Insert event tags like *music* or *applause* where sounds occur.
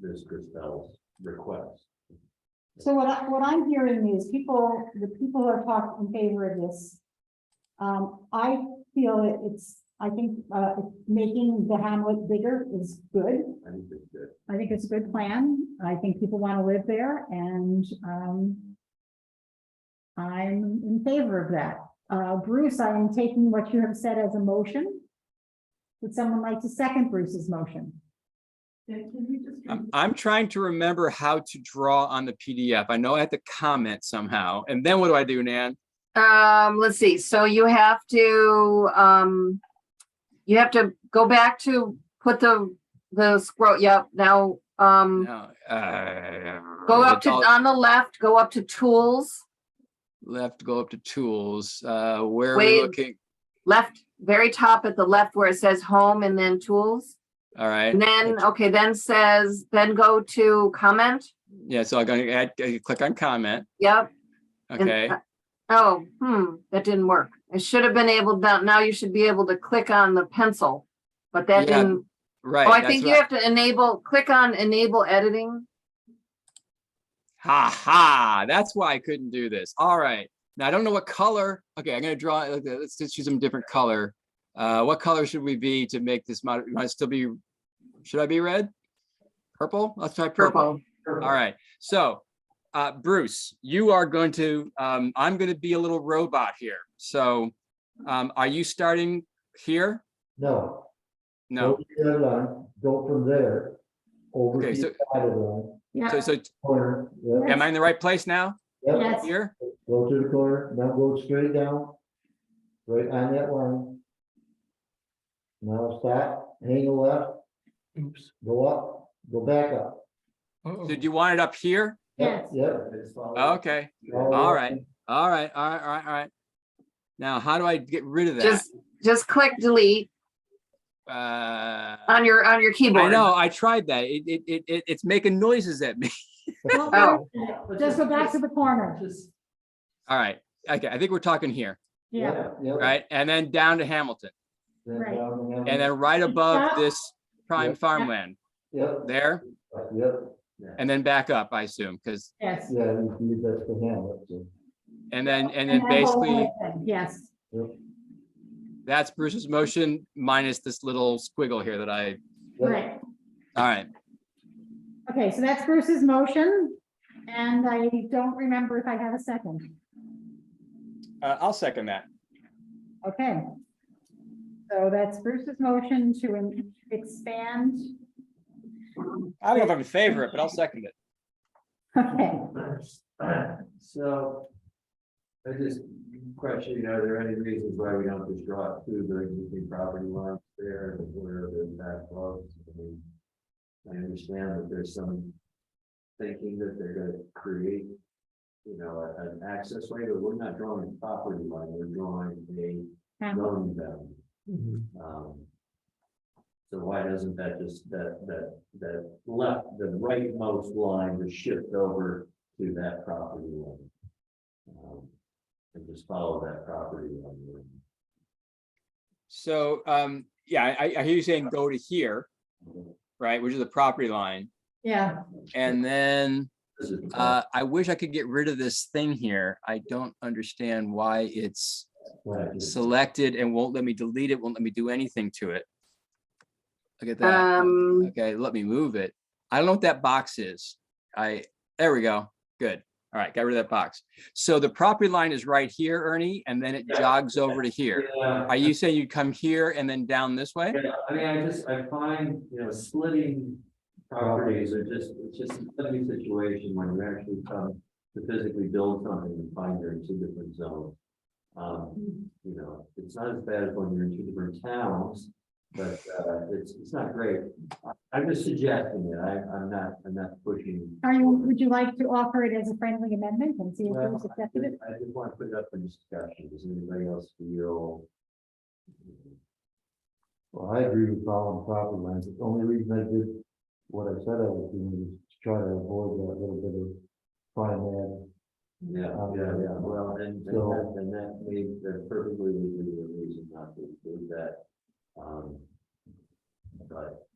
Ms. Christel's request. So what I, what I'm hearing is people, the people who are talking in favor of this. Um, I feel it- it's, I think, uh, making the hamlet bigger is good. I think it's good. I think it's a good plan. I think people want to live there and, um. I'm in favor of that. Uh, Bruce, I am taking what you have said as a motion. Would someone like to second Bruce's motion? Mm-hmm. I'm, I'm trying to remember how to draw on the PDF. I know I have to comment somehow. And then what do I do, Nan? Um, let's see, so you have to, um, you have to go back to put the, the scroll, yep, now, um, No, uh, go up to, all- on the left, go up to tools, Left, go up to tools. Uh, where are we Wait. looking? left, very top at the left where it says home and then tools. All right. And then, okay, then says, then go to comment, Yeah, so I'm gonna add, uh, click on comment. yep. and- Okay, Oh, hmm, that didn't work. It should have been able, now now you should be able to click on the pencil, but that Yeah, didn't. right. Oh, I that's think what you have to enable, click on enable editing. Ha ha, that's why I couldn't do this. All right. Now I don't know what color. Okay, I'm gonna draw, it like that. let's just use some different color. Uh, what color should we be to make this mod, might still be, should I be red? Purple? Let's try purple. Purple. All right, so, uh, Bruce, you are going to, um, I'm gonna be a little robot here. So, um, are you starting here? No. No, Go to the other line, go from there, over okay, to so, the other line, so, so, corner, yep, am I in the right place now? yep, Yes. Here? go to the corner, now go straight down. Right on that line. Now stop, hang a left. Oops. Go up, go back up. Did you want it up here? Yep, Yes. Yep. Okay. all the All way right. up. All right, all right, all right, all right. Now, how do I get rid of that? Just, just click delete Uh, on your, on your keyboard. I know, I tried that. It, it, it, it- it's making noises at me. *laughs* Oh. Just go back to the corner. All right, okay, I think we're talking here, Yeah. Yep. right? And then down to Hamilton, Then Right. down and then right above this prime Yeah. farmland Yep, there, yep, and then back up, I assume, because, Yes. yeah, you can use that for now, uh, that's it. and then, and then that whole basically, thing, Yes. that's Bruce's motion minus this little squiggle here that I, Yep. Right, all right. okay, so that's Bruce's motion, and I don't remember if I have a second, Uh, I'll second that. okay. So that's Bruce's motion to en- expand, I don't know if I'm in favor of it, but I'll second it. okay, So. I just question, you know, are there any reasons why we don't just draw it through the existing property lines there and where the back lots? I mean, I understand that there's some thinking that they're gonna create. You know, a- an access way, but we're not drawing a property line, we're drawing a Hamlet. zoning boundary. Um, So why doesn't that just, that, that, that left, the rightmost line just shift over to that property line? Um, And just follow that property line. So, um, yeah, I, I hear you saying go to here. right, which is the property line. yeah, And then This is- uh, I wish I could get rid of this thing here. I don't understand why it's what I just- selected and won't let me delete it, won't let me do anything to it. Look at that. Um, Okay, let me move it. I don't know what that box is. I, there we go. Good. All right, got rid of that box. So the property line is right here, Ernie, and then it Yeah. jogs over to here. Yeah, Are you saying you'd come here and then down this way? yeah, I mean, I just, I find, you know, splitting properties are just, it's just a funny situation when you actually come to physically build something and find you're in two different zones. Um, you know, it's not as bad as when you're in two different towns, but uh, it's, it's not great. I- I'm just suggesting it. I, I'm not, I'm not pushing. are you, would you like to offer it as a friendly amendment and see if Well, Bruce I accepted it? just I just want to put it up for discussion. Does anybody else feel? Well, I agree with following property lines. The only reason I did what I said I was doing was to try to avoid that little bit of fine line. Yeah, yeah, yeah. Well, and, and So- that, and that may, that perfectly would be a reason not to do that. Um, But